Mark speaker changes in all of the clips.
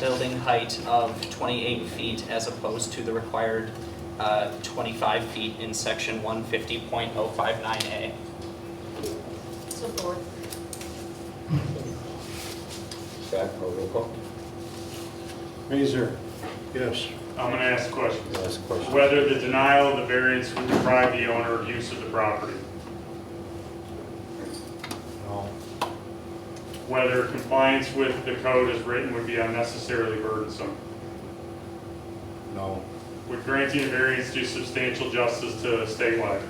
Speaker 1: building height of 28 feet as opposed to the required uh, 25 feet in section 150.059A.
Speaker 2: Support.
Speaker 3: Back, or roll call?
Speaker 4: Mazer. Yes.
Speaker 5: I'm gonna ask a question.
Speaker 3: Last question.
Speaker 5: Whether the denial of the variance would deprive the owner of use of the property.
Speaker 4: No.
Speaker 5: Whether compliance with the code as written would be unnecessarily burdensome.
Speaker 4: No.
Speaker 5: Would granting a variance do substantial justice to statewide?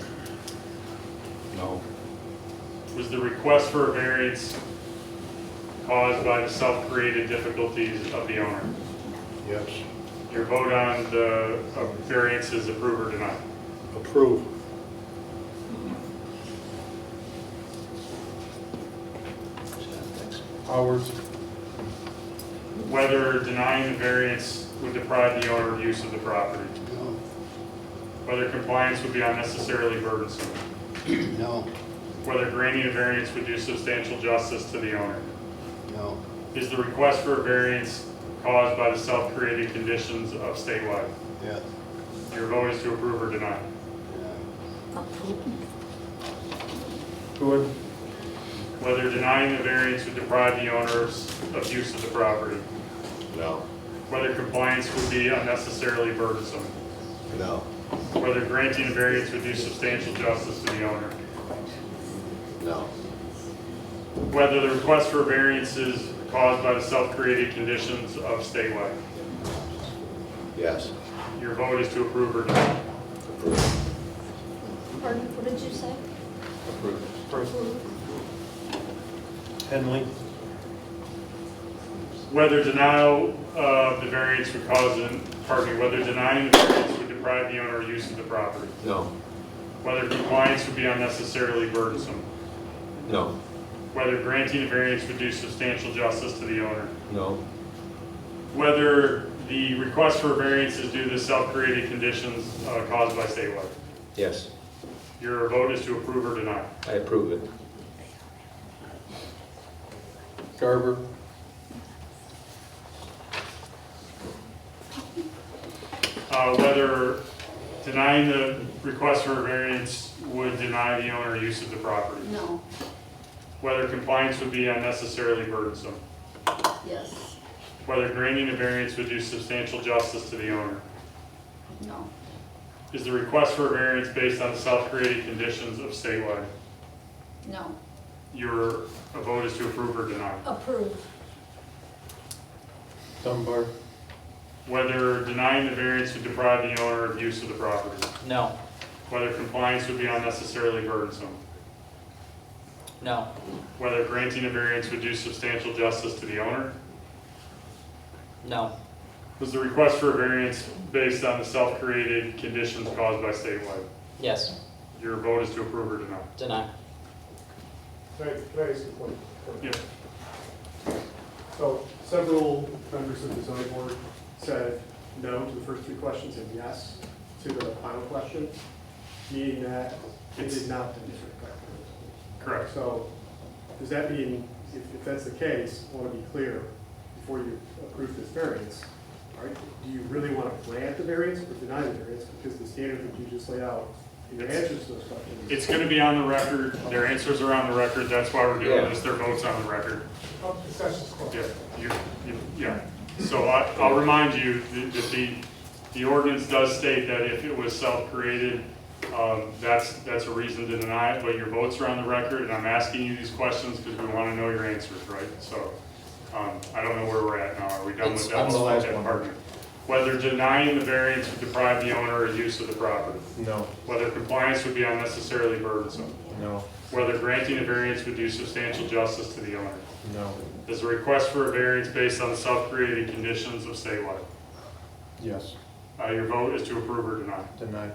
Speaker 4: No.
Speaker 5: Was the request for a variance caused by the self-created difficulties of the owner?
Speaker 4: Yes.
Speaker 5: Your vote on the uh, variance is approve or deny.
Speaker 4: Approve. Powers.
Speaker 5: Whether denying the variance would deprive the owner of use of the property.
Speaker 4: No.
Speaker 5: Whether compliance would be unnecessarily burdensome.
Speaker 4: No.
Speaker 5: Whether granting a variance would do substantial justice to the owner.
Speaker 4: No.
Speaker 5: Is the request for a variance caused by the self-created conditions of statewide?
Speaker 4: Yes.
Speaker 5: Your vote is to approve or deny.
Speaker 4: Good.
Speaker 5: Whether denying the variance would deprive the owners of use of the property.
Speaker 3: No.
Speaker 5: Whether compliance would be unnecessarily burdensome.
Speaker 3: No.
Speaker 5: Whether granting a variance would do substantial justice to the owner.
Speaker 3: No.
Speaker 5: Whether the request for variance is caused by the self-created conditions of statewide.
Speaker 3: Yes.
Speaker 5: Your vote is to approve or deny.
Speaker 3: Approved.
Speaker 2: Pardon, what did you say?
Speaker 3: Approved.
Speaker 4: Henley.
Speaker 5: Whether denial of the variance would cause, an- pardon me, whether denying the variance would deprive the owner of use of the property.
Speaker 3: No.
Speaker 5: Whether compliance would be unnecessarily burdensome.
Speaker 3: No.
Speaker 5: Whether granting a variance would do substantial justice to the owner.
Speaker 3: No.
Speaker 5: Whether the request for variance is due to self-created conditions uh, caused by statewide.
Speaker 3: Yes,
Speaker 5: Your vote is to approve or deny.
Speaker 3: I approve it.
Speaker 4: Garber.
Speaker 5: Uh, Whether denying the request for a variance would deny the owner use of the property.
Speaker 2: No,
Speaker 5: Whether compliance would be unnecessarily burdensome.
Speaker 2: yes,
Speaker 5: Whether granting a variance would do substantial justice to the owner.
Speaker 2: no,
Speaker 5: Is the request for a variance based on self-created conditions of statewide?
Speaker 2: no.
Speaker 5: Your vote is to approve or deny.
Speaker 2: Approve.
Speaker 4: Dunbar.
Speaker 5: Whether denying the variance would deprive the owner of use of the property.
Speaker 1: No,
Speaker 5: Whether compliance would be unnecessarily burdensome.
Speaker 1: no,
Speaker 5: Whether granting a variance would do substantial justice to the owner.
Speaker 1: no,
Speaker 5: Was the request for a variance based on the self-created conditions caused by statewide?
Speaker 1: yes,
Speaker 5: Your vote is to approve or deny.
Speaker 1: deny.
Speaker 6: Can I, can I ask a point?
Speaker 5: Yeah.
Speaker 6: So several members of the zoning board said no to the first three questions and yes to the final question, meaning that it did not demonstrate correctness.
Speaker 5: Correct.
Speaker 6: So does that mean, if, if that's the case, I want to be clear, before you approve this variance, all right, do you really want to grant the variance or deny the variance? Because the standard that you just laid out in your answers to those questions.
Speaker 5: It's going to be on the record. Their answers are on the record. That's why we're doing
Speaker 3: Yeah.
Speaker 5: this. Their vote's on the record.
Speaker 6: Oh, discussion's closed.
Speaker 5: Yeah, you, you, yeah. So I, I'll remind you that that the, the ordinance does state that if it was self-created, um, that's, that's a reason to deny it, but your votes are on the record, and I'm asking you these questions because we want to know your answers, right? So, um, I don't know where we're at now. Are we done
Speaker 4: It's-
Speaker 5: with that?
Speaker 4: I'm the last
Speaker 5: Let's let that
Speaker 4: one.
Speaker 5: partner. Whether denying the variance would deprive the owner of use of the property,
Speaker 4: No.
Speaker 5: whether compliance would be unnecessarily burdensome,
Speaker 4: No.
Speaker 5: whether granting a variance would do substantial justice to the owner
Speaker 4: No.
Speaker 5: is a request for a variance based on self-created conditions of statewide.
Speaker 4: Yes.
Speaker 5: Uh, your vote is to approve or deny.
Speaker 4: Denied.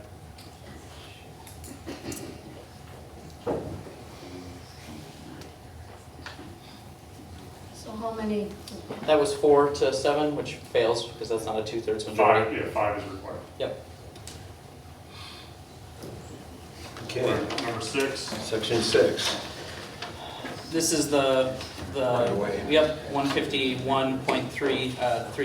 Speaker 2: So how many?
Speaker 1: That was four to seven, which fails because that's not a two-thirds
Speaker 5: Five,
Speaker 1: majority.
Speaker 5: yeah, five is required.
Speaker 1: Yep,
Speaker 3: Okay,
Speaker 5: Number six,
Speaker 3: section six.
Speaker 1: This is the,
Speaker 3: Right
Speaker 1: the,
Speaker 3: away.
Speaker 1: yep, 151.3, uh, three